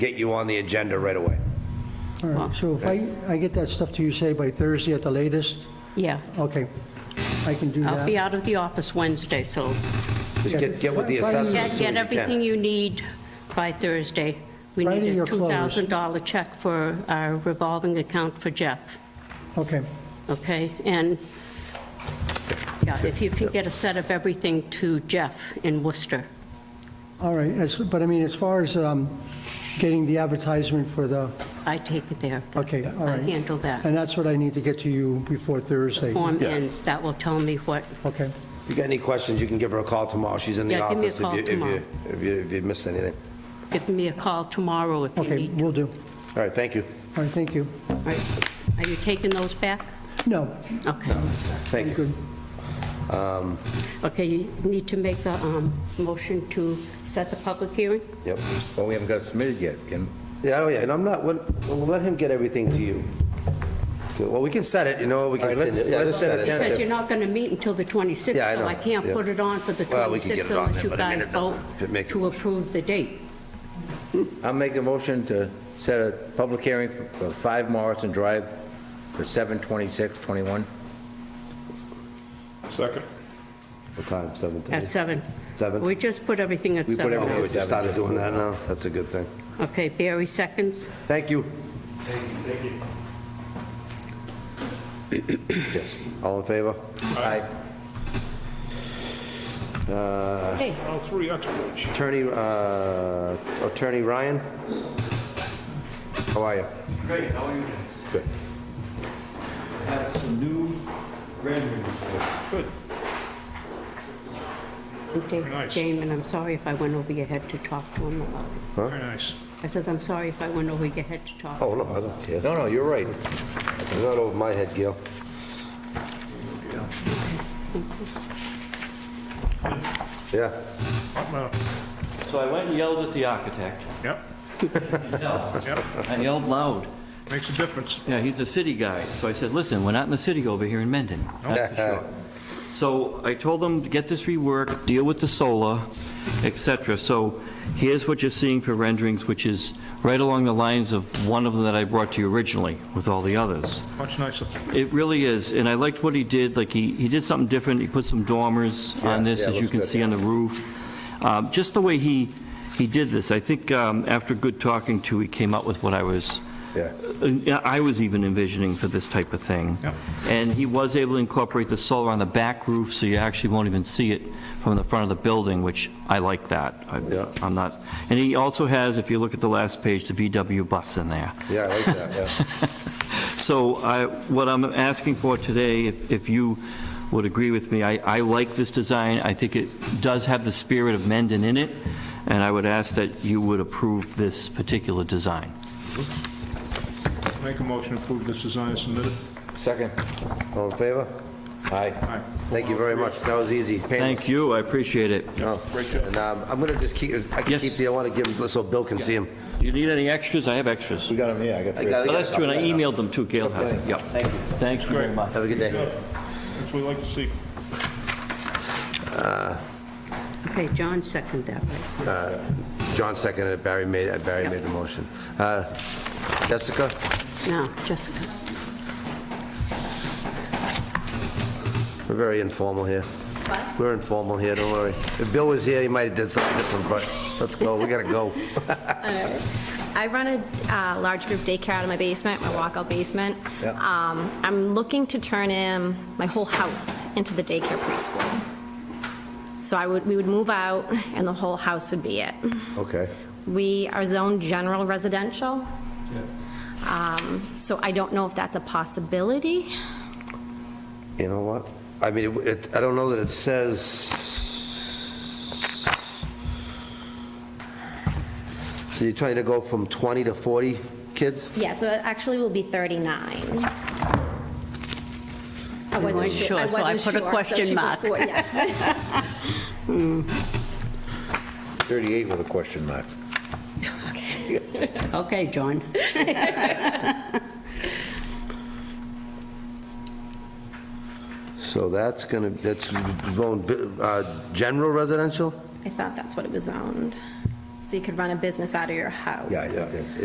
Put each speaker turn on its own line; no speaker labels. get you on the agenda right away.
All right, so if I, I get that stuff to you, say, by Thursday at the latest,
Yeah,
okay, I can do
I'll
that.
be out of the office Wednesday, so
Just get, get with the assessors as soon
get get
as you can.
everything you need by Thursday. We
Friday
need a
you're closed.
$2,000 check for our revolving account for Jeff,
Okay,
okay? And, yeah, if you can get a set of everything to Jeff in Worcester.
all right, as- but I mean, as far as um, getting the advertisement for the,
I take it there.
okay, all
I
right.
handle that.
And that's what I need to get to you before Thursday.
Form
Yeah.
ends, that will tell me what,
Okay,
If you got any questions, you can give her a call tomorrow. She's in the
Yeah, give me a
office if
call
you, if
tomorrow.
you, if you, if you missed anything.
give me a call tomorrow if you
okay,
need.
we will do.
All right, thank you.
All right, thank you.
All right. Are you taking those back?
No,
Okay.
Thank you.
good.
Okay, you need to make the um, motion to set the public hearing?
Yep.
Well, we haven't got it submitted yet, Can
Yeah, oh yeah, and I'm not, we'll, we'll let him get everything to you. Okay, Well, we can set it, you know, we
All
can.
right, let's-
yeah,
let's set it
Because
it.
you're not going to meet until the 26th,
Yeah, I
so
know,
I can't
yeah.
put it on for the
Well, we can get
26th
it on
unless
there,
you
but I mean,
guys
it doesn't-
vote
it makes it
to
worse.
approve the date.
I'll make a motion to set a public hearing for 5 Morrison Drive for 7/26/21.
Second.
What time, seven
At
thirty?
7.
Seven?
We just put everything at
We put
7.
everything
Okay,
now.
we just started doing that now, that's a good thing.
Okay, Barry seconds.
Thank you. Yes, all in favor?
Aye.
Uh,
Hey,
All three experts.
Attorney, uh, Attorney Ryan? How are you?
Great, how are you guys?
Good.
Have some new renderings for
Good.
Da-
nice.
Damon, I'm sorry if I went over your head to talk to him about it.
Very nice.
I says, I'm sorry if I went over your head to talk.
Oh, no, I don't care.
No, no, you're right.
It's not over my head, Gil. Yeah,
Hot mouth.
you. So I went and yelled at the architect.
Yep,
No,
yep.
I yelled loud.
Makes a difference.
Yeah, he's a city guy. So I said, listen, we're not in the city over here in Mendon. That's for sure. So I told them to get this reworked, deal with the solar, et cetera. So here's what you're seeing for renderings, which is right along the lines of one of them that I brought to you originally with all the others.
Much nicer.
It really is, and I liked what he did, like, he, he did something different, he put some dormers on
Yeah,
this,
yeah,
as you
looks
can
good.
see on the roof. Um, Just the way he, he did this, I think um, after good talking to, he came up with what I was,
yeah.
uh, I was even envisioning for this type of thing.
Yep.
And he was able to incorporate the solar on the back roof, so you actually won't even see it from the front of the building, which I like that. I-
Yeah.
I'm not, and he also has, if you look at the last page, the VW bus in there.
Yeah, I like that, yeah.
So I, what I'm asking for today, if, if you would agree with me, I, I like this design. I think it does have the spirit of Mendon in it, and I would ask that you would approve this particular design.
Make a motion to approve this design as submitted.
Second.
All in favor?
Aye.
Aye.
Thank you very much, that was easy.
Thank you, I appreciate it.
Great job. And um, I'm gonna just keep, I can
Yes.
keep the, I wanna give them, so Bill can see them.
You need any extras? I have extras.
We got him, yeah, I got
I got-
Oh, That's true, and I e- emailed them too, Gail has it, yep. Thank you. Thank you very much.
Have a good day.
Good. That's what we like to see.
Okay, John seconded that, right?
John seconded it, Barry made, it. Barry made the motion. Uh, Jessica?
No, Jessica.
We're very informal here. We're informal here, don't worry. If Bill was here, he might have did something different, but let's go, we gotta go.
I run a uh, large group daycare out of my basement, my walkout basement. Um, I'm looking to turn in my whole house into the daycare preschool. So I would, we would move out, and the whole house would be it.
Okay.
We are zoned general residential. Um, So I don't know if that's a possibility.
You know what? I mean, it- it, I don't know that it says... So you're trying to go from 20 to 40 kids?
Yeah, so it actually will be 39. I
weren't
wasn't su-
sure, so I put
wasn't
a
sure, so
question
she put
mark.
four, Yes.
38 with a question mark.
Okay, John.
So that's gonna, that's going, uh, general residential?
I thought that's what it was zoned. So
so you could run a business out of your house.
Yeah, yeah, yeah.